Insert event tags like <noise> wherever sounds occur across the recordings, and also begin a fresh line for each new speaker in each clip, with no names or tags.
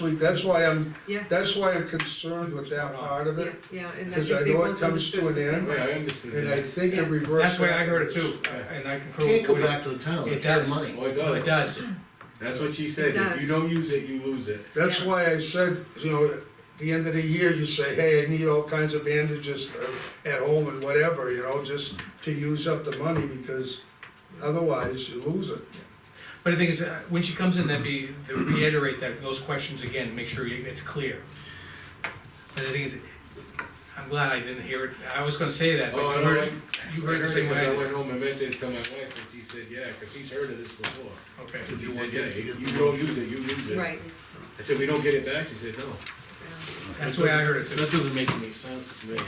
actually, that's why I'm,
Yeah,
that's why I'm concerned with that part of
yeah,
it,
yeah, and I
Because I
think they
know it
both
comes to
understood
an
the same
end.
way.
Wait, I
and
understand
I
that.
think it
Yeah.
reversed.
That's the way I heard it too, and I concur
Can't
with
go
what
back to the town,
It
it's their
does.
money.
Well, Oh, it
he, it
does,
does.
that's what she said,
It
if
does.
you don't use it, you lose it.
That's why I said, you know, at the end of the year, you say, hey, I need all kinds of bandages uh, at home and whatever, you know, just to use up the money, because otherwise you lose it.
But the thing is, uh, when she comes in, then be, reiterate that, those questions again, make sure you- it's clear. But the thing is, I'm glad I didn't hear it, I was gonna say that, but
Oh, I
you
know,
heard,
I-
you
I
heard the
heard it
same
was, I
way.
went home and mentioned it to my wife, and she said, yeah, cause she's heard of this before.
Okay,
And she
You
said,
want
yeah,
this to
you
get
you
the
don't
motion.
use it, you lose it.
Right,
I said, we don't get it back, she said, no.
yeah.
that's the way I heard it too.
That doesn't make any sense to me.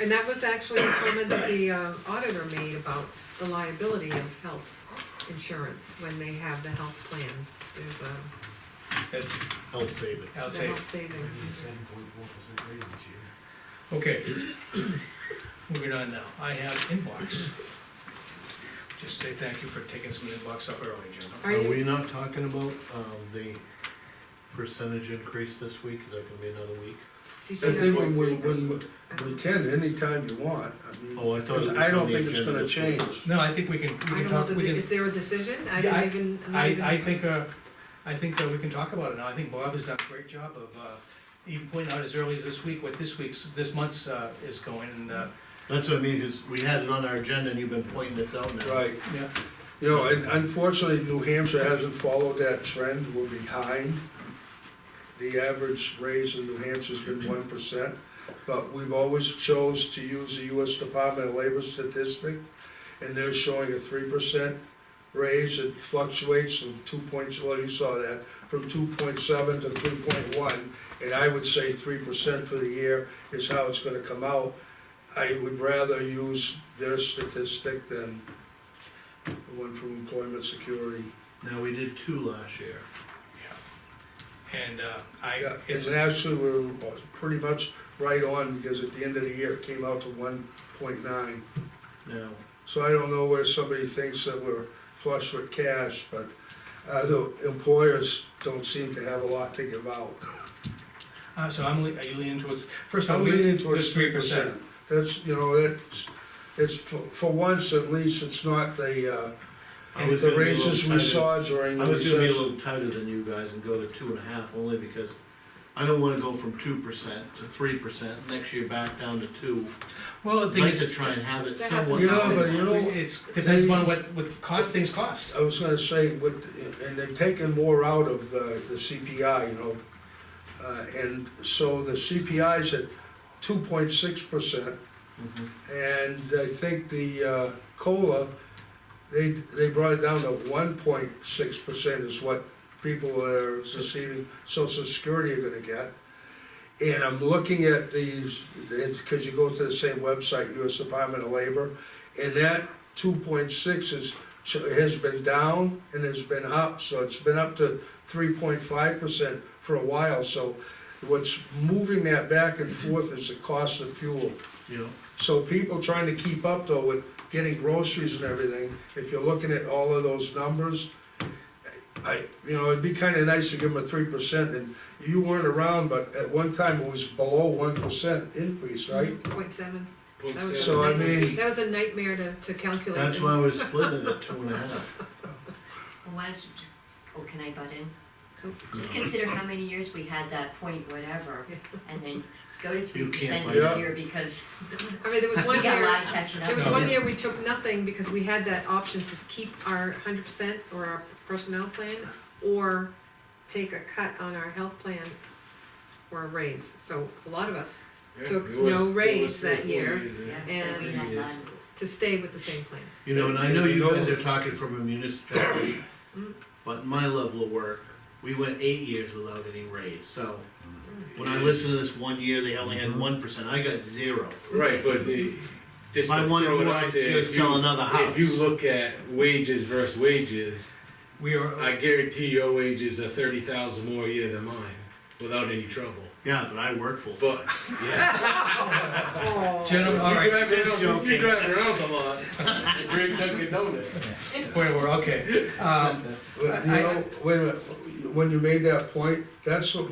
and that was actually a comment that the uh, auditor made about the liability of health insurance when they have the health plan. There's a,
That-
I'll save it.
I'll
the
say,
health savings.
okay. <clears throat> Moving on now, I have inbox. Just say thank you for taking some inbox up early, Jim.
Are
Are
you,
we not talking about, um, the percentage increase this week, is that gonna be another week?
see,
I
you
think when we, when we- we can, anytime you want, I mean,
Oh, I thought it was
because
on
I don't
the
think it's
agenda
gonna
this week.
change.
No, I think we can,
know, I
we can
don't know,
talk,
did
we
they-
can.
is there a decision? I
Yeah, I-
didn't even, I'm not
I,
even.
I think, uh, I think that we can talk about it now, I think Bob has done a great job of, uh, even pointing out as early as this week what this week's, this month's, uh, is going, and, uh,
That's what I mean, is we had it on our agenda and you've been pointing this out now.
Right,
yeah,
you know, and unfortunately, New Hampshire hasn't followed that trend, we're behind. The average raise in New Hampshire's been one percent, but we've always chose to use the US Department of Labor statistic, and they're showing a three percent raise, it fluctuates from two points, well, you saw that, from two point seven to three point one, and I would say three percent for the year is how it's gonna come out. I would rather use their statistic than the one from employment security.
Now, we did two last year.
and, uh, I,
Yeah,
it's,
It's actually, we're pretty much right on, because at the end of the year, it came out to one point nine.
Now,
So I don't know where somebody thinks that we're flush with cash, but, uh, the employers don't seem to have a lot to give out.
uh, so I'm, le- are you leaning towards, first of all,
I'm
we,
leaning towards
this
three
three percent.
percent. That's, you know, that's, it's, for, for once at least, it's not the, uh,
I was
the
gonna be a little
raises we
tighter-
saw during
I
the
was gonna be a
recession.
little tighter than you guys and go to two and a half, only because I don't wanna go from two percent to three percent, next year back down to two.
Well,
I'd
the thing
like to
is,
try and have it
That
somewhat.
happens
Yeah, but you know,
it's, depends on what, what cost, things cost.
I was gonna say, with, and they've taken more out of uh, the CPI, you know, uh, and so the CPI's at two point six percent,
Mhm.
and I think the uh, COLA, they, they brought it down to one point six percent is what people that are receiving social security are gonna get. And I'm looking at these, it's, cause you go to the same website, US Department of Labor, and that two point six is, has been down and has been up, so it's been up to three point five percent for a while, so what's moving that back and forth is the cost of fuel.
You know,
So people trying to keep up though with getting groceries and everything, if you're looking at all of those numbers, I, you know, it'd be kinda nice to give them a three percent and you weren't around, but at one time it was below one percent increase, right?
Point seven.
Point
That was a
seven.
So I
nightmare-
mean-
That was a nightmare to, to calculate.
that's why we're splitting it at two and a half.
Well, Why, don't you just- oh, can I butt in? Just consider how many years we had that point whatever, and then go to three percent
buy
this
it.
year because
I mean,
<laughs>
there was
we
one
got a
year,
lot of catching up.
there was
to
one
do.
year we took nothing because we had that option to keep our hundred percent or our personnel plan or take a cut on our health plan or a raise. So a lot of us
Yeah,
took
it was-
no
it was
raise
three or
that
four
year.
years, yeah.
Yeah,
and-
we had none.
to stay with the same plan.
You know, and I know
You
you
know-
guys are talking from a municipality, but my level of work, we went eight years without any raise, so. When I listened to this one year, they only had one percent, I got zero.
Right, but the, just
If I
to
wanted
throw it
more,
out
I
there,
could
if
sell
you-
another
If you
house.
look at wages versus wages,
We
I
are, uh,
guarantee your wages are thirty thousand more a year than mine, without any trouble.
Yeah, but I work full.
But, yeah.
Oh.
gentlemen, <laughs> all right,
You drive around, you
Joking.
drive around a
<laughs>
lot, and drink Dunkin' Donuts.
point of order, okay. Um,
<laughs> But, you
I- I-
know, wait a minute, when you made that point, that's what